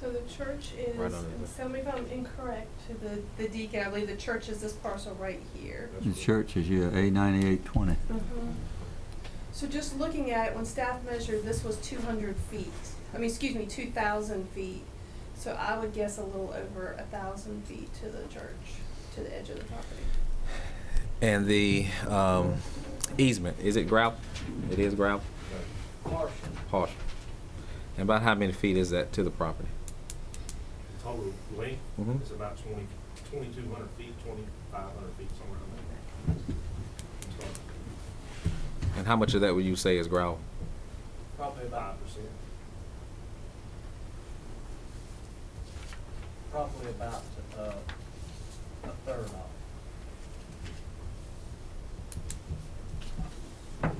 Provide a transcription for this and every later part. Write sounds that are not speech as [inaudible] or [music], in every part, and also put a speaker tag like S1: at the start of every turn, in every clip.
S1: So the church is,
S2: Right under
S1: and
S2: the-
S1: tell me if I'm incorrect, to the, the deacon, I believe the church is this parcel right here.
S2: That's
S3: The
S2: what-
S3: church is, yeah, A ninety-eight twenty.
S1: Mhm. So just looking at it, when staff measured, this was two hundred feet, I mean, excuse me, two thousand feet. So I would guess a little over a thousand feet to the church, to the edge of the property.
S4: And the um, easement, is it gravel? It is gravel?
S5: Partial,
S4: Partial. And about how many feet is that to the property?
S5: total length
S3: Mm-hmm.
S4: Mhm.
S5: is about twenty, twenty-two hundred feet, twenty-five hundred feet, somewhere around there. So,
S4: And how much of that would you say is gravel?
S5: Probably about five percent.
S6: probably about, uh, a third of it.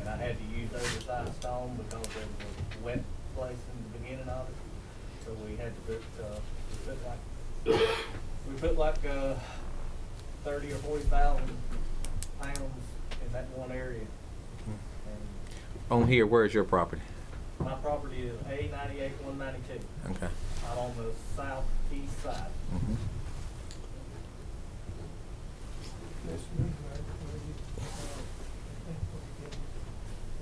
S6: And I had to use oversized stone because it was a wet place in the beginning of it, so we had to put, uh, we put like, we put like, uh, thirty or forty thousand pounds in that one area. And
S4: On here, where is your property?
S6: my property is A ninety-eight, one ninety-two,
S4: Okay.
S6: out on the southeast side.
S4: Mhm.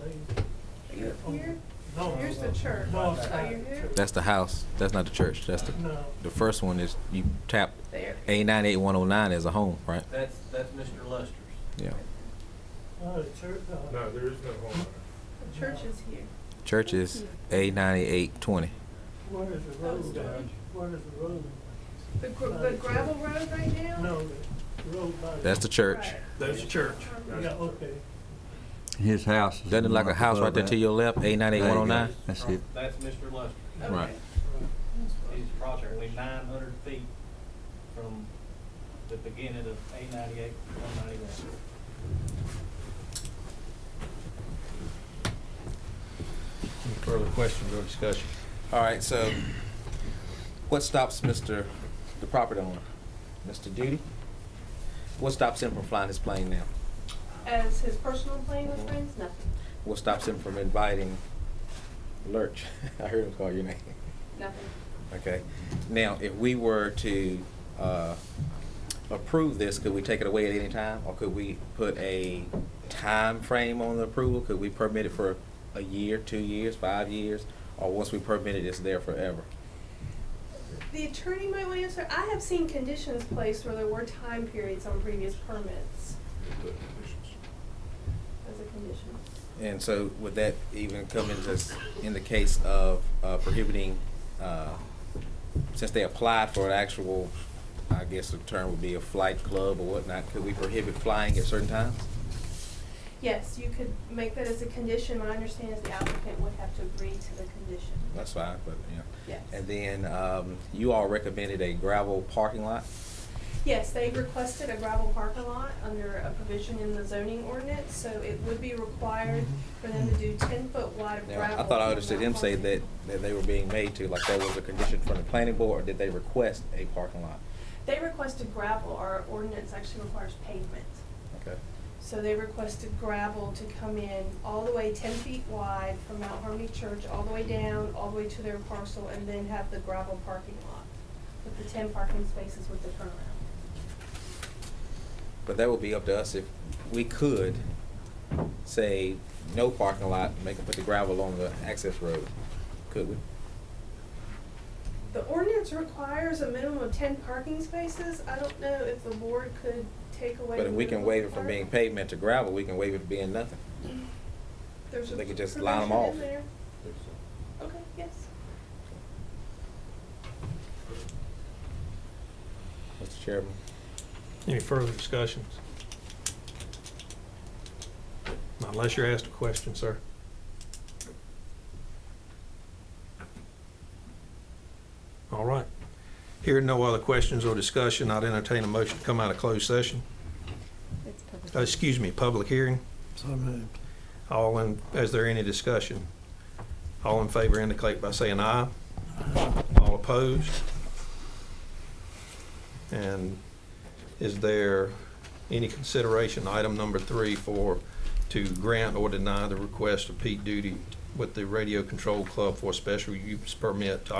S1: Are you up here?
S7: No.
S1: Here's the church.
S7: No, it's
S1: Oh,
S7: not.
S1: you're here?
S4: That's the house. That's not the church. That's the,
S7: No.
S4: the first one is, you tap
S1: There.
S4: A nine eight one oh nine as a home, right?
S6: That's, that's Mr. Luster's.
S4: Yeah.
S7: No, the church, uh,
S5: No, there is no home on
S1: The church is here.
S4: Church is A ninety eight twenty.
S7: where is the
S1: That was
S7: road?
S1: done.
S7: Where is the road?
S1: The gr- the gravel road right now?
S7: No, the road by.
S4: That's the church.
S1: Right.
S5: There's a church.
S7: Yeah, okay.
S3: His house is. the
S4: Doesn't it like
S3: one
S4: a
S3: up
S4: house
S3: above
S4: right there
S3: that?
S4: to your left, A nine eight one oh nine?
S3: That's it.
S6: That's Mr. Luster.
S1: Okay.
S4: Right.
S6: He's approximately nine hundred feet from the beginning of A ninety-eight, one ninety-one.
S8: Further questions or discussion?
S4: All right, so what stops Mr., the property owner, Mr. Duty? What stops him from flying his plane now?
S1: As his personal plane with friends, nothing,
S4: What stops him from inviting Lurch? [laughs] I heard him call your name.
S1: nothing.
S4: Okay. Now, if we were to uh, approve this, could we take it away at any time? Or could we put a time frame on the approval? Could we permit it for a year, two years, five years? Or once we permit it, it's there forever?
S1: The attorney might want to answer. I have seen conditions placed where there were time periods on previous permits as a condition.
S4: And so would that even come into, s- in the case of uh, prohibiting, uh, since they applied for an actual, I guess the term would be a flight club or whatnot, could we prohibit flying at certain times?
S1: Yes, you could make that as a condition. My understanding is the applicant would have to agree to the condition.
S4: That's fine, but, yeah.
S1: Yes.
S4: And then um, you all recommended a gravel parking lot?
S1: Yes, they requested a gravel parking lot under a provision in the zoning ordinance, so it would be required for them to do ten foot wide of
S4: Now,
S1: gravel.
S4: I thought I understood him say
S1: parking.
S4: that, that they were being made to, like that was a condition from the planning board, or did they request a parking lot?
S1: They requested gravel. Our ordinance actually requires pavement.
S4: Okay.
S1: So they requested gravel to come in all the way ten feet wide from Mount Harmony Church, all the way down, all the way to their parcel, and then have the gravel parking lot with the ten parking spaces with the turnaround.
S4: But that would be up to us if we could say no parking lot, make them put the gravel on the access road. Could we?
S1: The ordinance requires a minimum of ten parking spaces. I don't know if the board could take away.
S4: But if we can
S1: minimum
S4: waive it from being
S1: requirement.
S4: pavement to gravel, we can waive it to being nothing.
S1: There's a
S4: they could just line 'em
S1: provision in
S4: off.
S1: there.
S5: it.
S1: Okay, yes.
S4: Mr. Chairman,
S8: Any further discussions? Unless you're asked a question, sir. All right. Here, no other questions or discussion. I'd entertain a motion to come out of closed session. Uh, Excuse me, public hearing.
S7: So moved.
S8: All in, is there any discussion? All in favor indicate by saying aye. All opposed? And is there any consideration, item number three, for, to grant or deny the request of Pete Duty with the Radio Control Club for a special use permit to